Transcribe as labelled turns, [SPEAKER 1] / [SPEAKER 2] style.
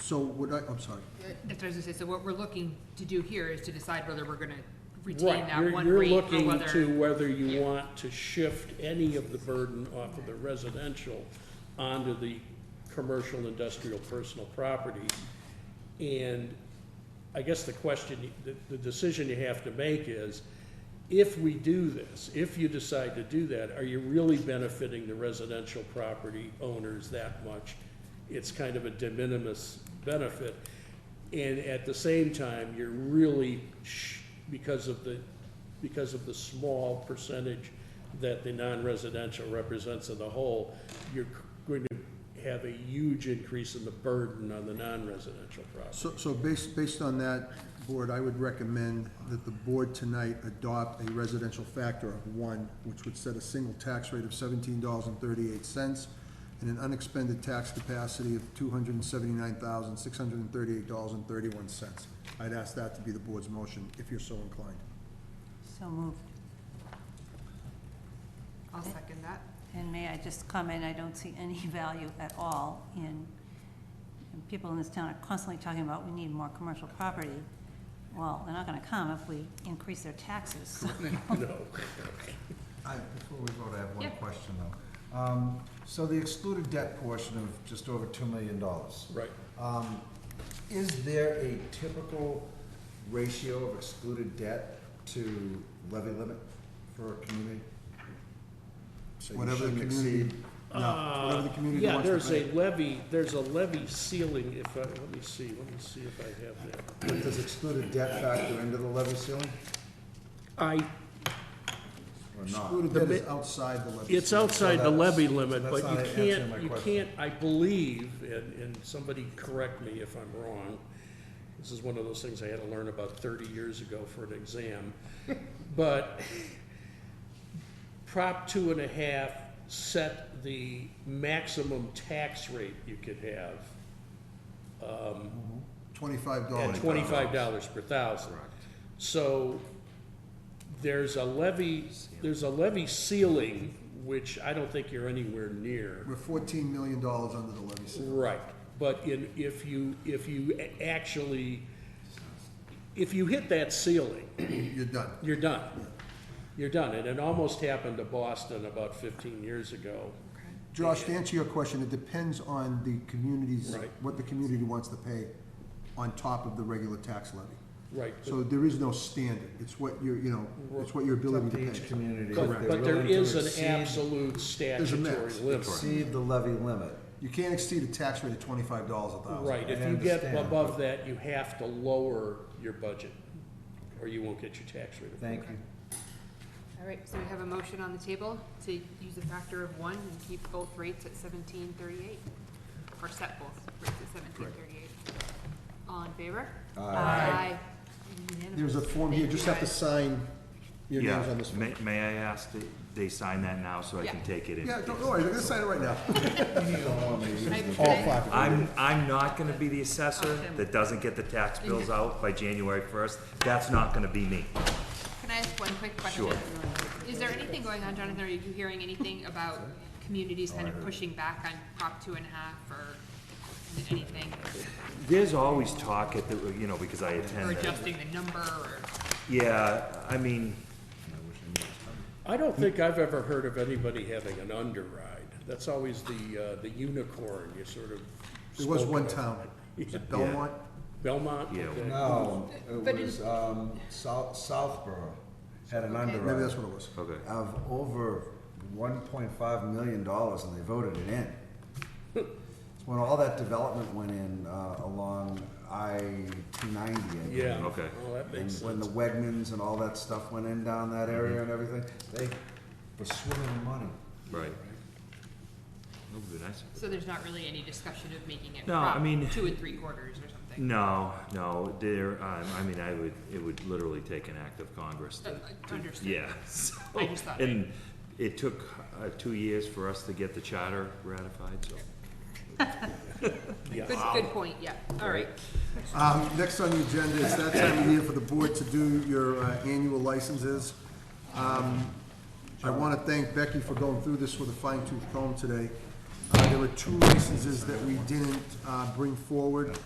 [SPEAKER 1] So would I, I'm sorry,
[SPEAKER 2] That's what I was gonna say, so what we're looking to do here is to decide whether we're gonna retain
[SPEAKER 3] Right,
[SPEAKER 2] that
[SPEAKER 3] you're,
[SPEAKER 2] one
[SPEAKER 3] you're
[SPEAKER 2] rate or
[SPEAKER 3] looking to
[SPEAKER 2] whether.
[SPEAKER 3] whether you want to shift any of the burden off of the residential onto the commercial, industrial, personal property. And I guess the question, the, the decision you have to make is, if we do this, if you decide to do that, are you really benefiting the residential property owners that much? It's kind of a de minimis benefit. And at the same time, you're really, sh- because of the, because of the small percentage that the non-residential represents of the whole, you're going to have a huge increase in the burden on the non-residential property.
[SPEAKER 1] so, so based, based on that, board, I would recommend that the board tonight adopt a residential factor of one, which would set a single tax rate of seventeen dollars and thirty-eight cents and an unexpended tax capacity of two hundred and seventy-nine thousand, six hundred and thirty-eight dollars and thirty-one cents. I'd ask that to be the board's motion, if you're so inclined.
[SPEAKER 4] So moved.
[SPEAKER 2] I'll second that.
[SPEAKER 4] And may I just comment, I don't see any value at all in, and people in this town are constantly talking about we need more commercial property. Well, they're not gonna come if we increase their taxes, so
[SPEAKER 3] No.
[SPEAKER 5] I, before we vote, I have one
[SPEAKER 2] Yeah.
[SPEAKER 5] question though. Um, so the excluded debt portion of just over two million dollars.
[SPEAKER 3] Right.
[SPEAKER 5] Um, is there a typical ratio of excluded debt to levy limit for a community? So you
[SPEAKER 1] Whatever the
[SPEAKER 5] shouldn't
[SPEAKER 1] community-
[SPEAKER 5] exceed-
[SPEAKER 1] Now, whatever the community
[SPEAKER 3] Uh, Yeah,
[SPEAKER 1] wants to
[SPEAKER 3] there's
[SPEAKER 1] pay.
[SPEAKER 3] a levy, there's a levy ceiling if I, let me see, let me see if I have that.
[SPEAKER 5] But does excluded debt factor into the levy ceiling
[SPEAKER 3] I,
[SPEAKER 5] or not?
[SPEAKER 1] Excluded debt is
[SPEAKER 3] The mi-
[SPEAKER 1] outside the legislature.
[SPEAKER 3] it's outside the levy limit,
[SPEAKER 5] so
[SPEAKER 3] but you
[SPEAKER 5] that's not answering my
[SPEAKER 3] can't, you
[SPEAKER 5] question.
[SPEAKER 3] can't, I believe, and, and somebody correct me if I'm wrong. This is one of those things I had to learn about thirty years ago for an exam. But Prop two and a half set the maximum tax rate you could have
[SPEAKER 1] Twenty-five
[SPEAKER 3] at
[SPEAKER 1] dollars.
[SPEAKER 3] twenty-five dollars per thousand. So there's a levy, there's a levy ceiling, which I don't think you're anywhere near.
[SPEAKER 1] We're fourteen million dollars under the levy ceiling.
[SPEAKER 3] Right, but in, if you, if you a- actually, if you hit that ceiling,
[SPEAKER 1] You're done.
[SPEAKER 3] you're done. You're done, and it almost happened to Boston about fifteen years ago.
[SPEAKER 1] Josh, to answer your question, it depends on the community's,
[SPEAKER 3] Right.
[SPEAKER 1] what the community wants to pay on top of the regular tax levy.
[SPEAKER 3] Right, but-
[SPEAKER 1] So there is no standard. It's what your, you know, it's what your
[SPEAKER 5] It's
[SPEAKER 1] ability
[SPEAKER 5] up
[SPEAKER 1] to
[SPEAKER 5] to each
[SPEAKER 1] pay.
[SPEAKER 5] community. if
[SPEAKER 3] but,
[SPEAKER 5] they're
[SPEAKER 3] but there
[SPEAKER 5] willing to
[SPEAKER 3] is an
[SPEAKER 5] exceed-
[SPEAKER 3] absolute statutory
[SPEAKER 1] max.
[SPEAKER 3] limit.
[SPEAKER 5] Exceed the levy limit.
[SPEAKER 1] You can't exceed a tax rate of twenty-five dollars a thousand.
[SPEAKER 3] Right, if
[SPEAKER 5] I
[SPEAKER 3] you get
[SPEAKER 5] understand,
[SPEAKER 3] above that, you have to lower your budget, or you won't get your tax rate.
[SPEAKER 5] Thank you.
[SPEAKER 2] All right, so we have a motion on the table to use a factor of one and keep both rates at seventeen thirty-eight, or set both rates at seventeen thirty-eight. All in favor? Aye. Unanimous.
[SPEAKER 1] There's a form here,
[SPEAKER 2] Thank you,
[SPEAKER 1] just have to
[SPEAKER 2] guys.
[SPEAKER 1] sign your
[SPEAKER 6] Yeah,
[SPEAKER 1] names on this. form.
[SPEAKER 6] may, may I ask that they sign that now so I can
[SPEAKER 2] Yeah.
[SPEAKER 6] take it in?
[SPEAKER 1] Yeah, don't worry, they're gonna sign it right now.
[SPEAKER 2] Can I-
[SPEAKER 1] All
[SPEAKER 2] can I-
[SPEAKER 1] five of them.
[SPEAKER 6] I'm, I'm not gonna be the assessor
[SPEAKER 2] Okay.
[SPEAKER 6] that doesn't get the tax bills out by January first. That's not gonna be me.
[SPEAKER 2] Can I ask one quick question?
[SPEAKER 6] Sure.
[SPEAKER 2] Is there anything going on, Jonathan, are you hearing anything about communities kind of pushing back on Prop two and a half or anything?
[SPEAKER 6] There's always talk at the, you know, because I
[SPEAKER 2] Or
[SPEAKER 6] attend, the-
[SPEAKER 2] adjusting the number or,
[SPEAKER 6] yeah, I mean,
[SPEAKER 3] I don't think I've ever heard of anybody having an underride. That's always the, uh, the unicorn, you sort of.
[SPEAKER 1] There was
[SPEAKER 3] spoke
[SPEAKER 1] one
[SPEAKER 3] of.
[SPEAKER 1] town, was it
[SPEAKER 3] Yeah.
[SPEAKER 1] Belmont,
[SPEAKER 3] Belmont?
[SPEAKER 6] Yeah.
[SPEAKER 3] Okay.
[SPEAKER 5] No, it
[SPEAKER 2] But in-
[SPEAKER 5] was, um, South, Southborough had an
[SPEAKER 1] maybe that's
[SPEAKER 5] underwrite
[SPEAKER 1] what it was.
[SPEAKER 6] okay.
[SPEAKER 5] of over one point five million dollars and they voted it in. It's When all that development went in, uh, along I two ninety.
[SPEAKER 3] Yeah.
[SPEAKER 6] Okay.
[SPEAKER 3] Well, that
[SPEAKER 5] And
[SPEAKER 3] makes
[SPEAKER 5] when
[SPEAKER 3] sense.
[SPEAKER 5] the Wegmans and all that stuff went in down that area and everything, they were swimming in money.
[SPEAKER 6] Right. That would be nice.
[SPEAKER 2] so there's not really any discussion of making it
[SPEAKER 6] No, I
[SPEAKER 2] Prop
[SPEAKER 6] mean-
[SPEAKER 2] two and three quarters or something?
[SPEAKER 6] No, no, there, um, I mean, I would, it would literally take an act of Congress to,
[SPEAKER 2] Uh, uh,
[SPEAKER 6] to-
[SPEAKER 2] understood.
[SPEAKER 6] yeah, so.
[SPEAKER 2] I just thought-
[SPEAKER 6] And it took, uh, two years for us to get the charter ratified, so.
[SPEAKER 3] Yeah.
[SPEAKER 2] Good, good point, yeah, all right.
[SPEAKER 1] Um, Next on the agenda is that time of year for the board to do your uh, annual licenses. Um, I want to thank Becky for going through this with a fine tooth comb today. Uh, There were two licenses that we didn't uh, bring forward.